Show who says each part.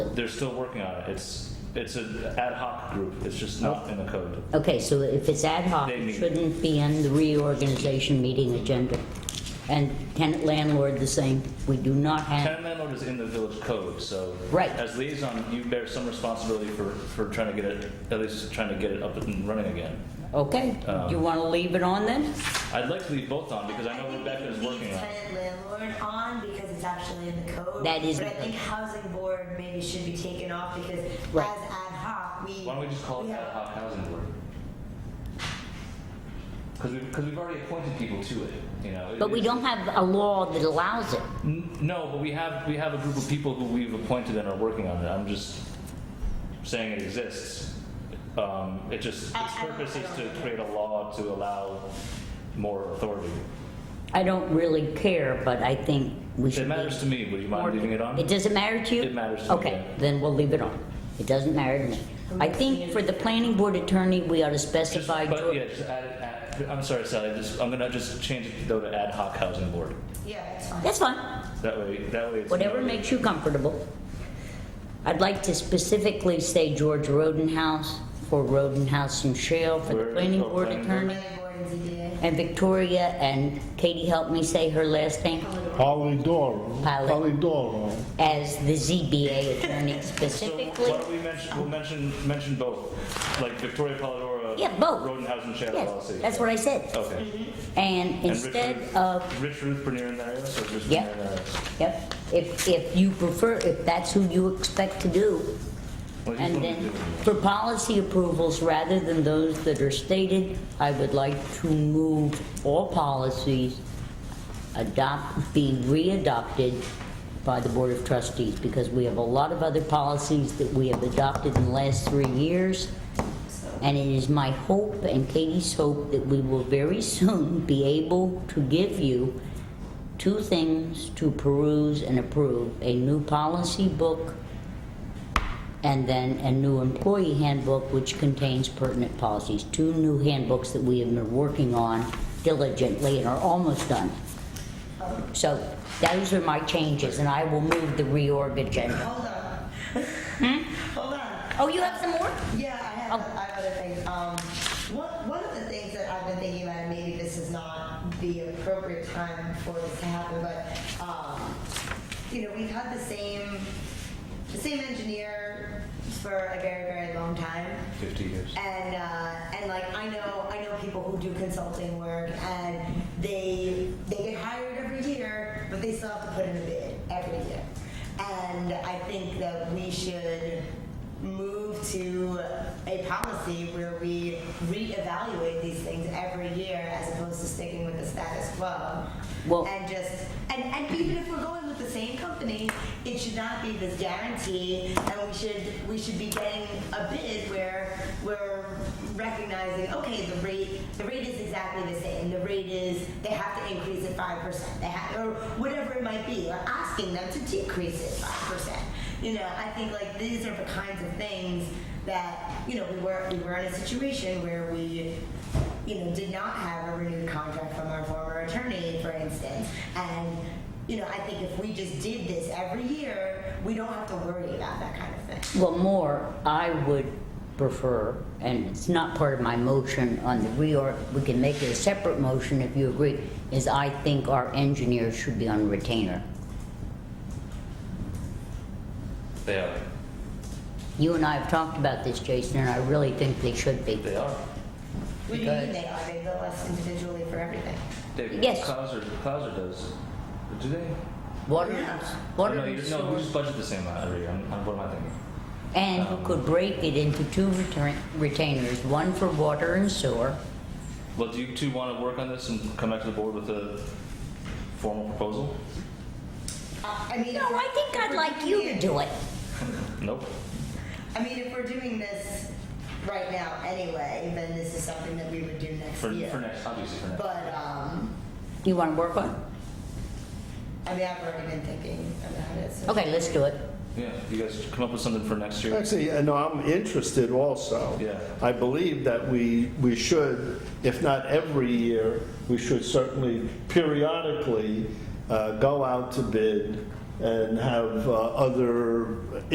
Speaker 1: They're still working on it. It's, it's an ad hoc group. It's just
Speaker 2: Oh.
Speaker 1: not in the code.
Speaker 2: Okay, so if it's ad hoc,
Speaker 1: They
Speaker 2: it
Speaker 1: meet.
Speaker 2: shouldn't be on the reorganization meeting agenda. And tenant landlord the same, we do not have,
Speaker 1: Tenant landlord is in the village code, so.
Speaker 2: Right.
Speaker 1: As liaison, you bear some responsibility for, for trying to get it, at least trying to get it up and running again.
Speaker 2: okay,
Speaker 1: Um,
Speaker 2: you want to leave it on then?
Speaker 1: I'd like to leave both on because I know Rebecca is working on it.
Speaker 3: Tenant landlord on because it's actually in the code.
Speaker 2: That is in
Speaker 3: But
Speaker 2: the
Speaker 3: I think housing board maybe should be taken off because as
Speaker 2: Right.
Speaker 3: ad hoc, we.
Speaker 1: Why don't we just call it
Speaker 3: Yeah.
Speaker 1: ad hoc housing board? Because we've, because we've already appointed people to it, you know.
Speaker 2: But we
Speaker 1: It's-
Speaker 2: don't have a law that allows it.
Speaker 1: N- No, but we have, we have a group of people who we've appointed and are working on it. I'm just saying it exists. Um, It just,
Speaker 3: I-
Speaker 1: its
Speaker 3: I don't-
Speaker 1: purpose
Speaker 3: I
Speaker 1: is
Speaker 3: don't
Speaker 1: to
Speaker 3: think it
Speaker 1: create a law to allow more authority.
Speaker 2: I don't really care, but I think we should
Speaker 1: It
Speaker 2: be...
Speaker 1: matters to me. Would you mind leaving it on?
Speaker 2: It doesn't matter to you?
Speaker 1: It matters to me,
Speaker 2: Okay,
Speaker 1: yeah.
Speaker 2: then we'll leave it on. It doesn't matter to me. I think for the planning board attorney, we ought to
Speaker 1: Just-
Speaker 2: specify...
Speaker 1: But yeah, just add, add- I'm sorry, Sally, just, I'm gonna just change it though to ad hoc housing board.
Speaker 3: Yeah, it's fine.
Speaker 2: That's fine.
Speaker 1: That way, that way it's.
Speaker 2: Whatever makes you comfortable. I'd like to specifically say George Rodenhouse for Rodenhouse and Shale for the
Speaker 1: Where-
Speaker 2: planning
Speaker 1: oh,
Speaker 2: board
Speaker 1: planning
Speaker 2: attorney.
Speaker 3: Planning board and ZBA.
Speaker 2: And Victoria and Katie helped me say her last name
Speaker 4: Polidoro.
Speaker 2: Pali-
Speaker 4: Polidoro.
Speaker 2: as the ZBA attorney
Speaker 1: So why
Speaker 2: specifically.
Speaker 1: don't we mention, we'll mention, mention both, like Victoria Polidora.
Speaker 2: Yeah, both.
Speaker 1: Rodenhausen Shadow
Speaker 2: Yes,
Speaker 1: LLC.
Speaker 2: that's what I said.
Speaker 1: Okay.
Speaker 2: And
Speaker 1: And Rich
Speaker 2: instead
Speaker 1: Ruth-
Speaker 2: of
Speaker 1: Rich Ruth Bernier in that area, so just
Speaker 2: Yeah.
Speaker 1: Bernier in uh, that area.
Speaker 2: Yep, if, if you prefer, if that's who you expect to do.
Speaker 1: Well, he's
Speaker 2: And
Speaker 1: gonna do
Speaker 2: then
Speaker 1: it.
Speaker 2: for policy approvals, rather than those that are stated, I would like to move all policies adopt, be readopted by the Board of Trustees, because we have a lot of other policies that we have adopted in the last three years. And it is my hope and Katie's hope that we will very soon be able to give you two things to peruse and approve, a new policy book and then a new employee handbook which contains pertinent policies. Two new handbooks that we have been working on diligently and are almost done. So those are my changes and I will move the reorg agenda.
Speaker 3: Hold on.
Speaker 2: Hmm?
Speaker 3: Hold on.
Speaker 2: Oh, you have some more?
Speaker 3: Yeah, I have,
Speaker 2: Oh.
Speaker 3: I have other things. Um, one, one of the things that I've been thinking about, and maybe this is not the appropriate time for this to happen, but, um, you know, we've had the same, the same engineer for a very, very long time.
Speaker 1: Fifty years.
Speaker 3: And uh, and like I know I know people who do consulting work and they they get hired every year, but they still have to put in a bid every year. And I think that we should move to a policy where we reevaluate these things every year as opposed to sticking with the status quo.
Speaker 2: Well-
Speaker 3: and just and, and even if we're going with the same company, it should not be this guarantee, and we should we should be getting a bid where we're recognizing okay the rate the rate is exactly the same. The rate is they have to increase it five percent. They have or whatever it might be. We're asking them to decrease it five percent. You know, I think like these are the kinds of things that you know we were we were in a situation where we you know, did not have a renewed contract from our former attorney, for instance. And, you know, I think if we just did this every year, we don't have to worry about that kind of thing.
Speaker 2: Well, more, I would prefer, and it's not part of my motion on the reorg, we can make it a separate motion if you agree, is I think our engineers should be on retainer.
Speaker 1: They are.
Speaker 2: You and I have talked about this, Jason, and I really think they should be.
Speaker 1: They are.
Speaker 3: What do you
Speaker 2: Because-
Speaker 3: mean they are? They bill us individually for everything.
Speaker 1: They,
Speaker 2: Yes.
Speaker 1: Clouser, Clouser does. Do they?
Speaker 2: Water,
Speaker 1: Oh,
Speaker 2: water
Speaker 1: no, you-
Speaker 2: and
Speaker 1: No, we
Speaker 2: sewer.
Speaker 1: just budget the same amount every year. I'm- I'm- What am I thinking?
Speaker 2: And you could break it into two retain- retainers, one for water and sewer.
Speaker 1: Well, do you two want to work on this and come back to the board with a formal proposal?
Speaker 3: Uh, I mean,
Speaker 2: No, I think I'd like you to do it.
Speaker 1: Nope.
Speaker 3: I mean, if we're doing this right now anyway, then this is something that we would do next
Speaker 1: For,
Speaker 3: year.
Speaker 1: for next, obviously for next.
Speaker 3: But, um,
Speaker 2: You want to work on it?
Speaker 3: I mean, I've already been thinking about it. So.
Speaker 2: Okay, let's do it.
Speaker 1: Yeah, you guys come up with something for next year.
Speaker 4: Actually, I know I'm interested also.
Speaker 1: Yeah.
Speaker 4: I believe that we, we should, if not every year, we should certainly periodically uh, go out to bid and have uh, other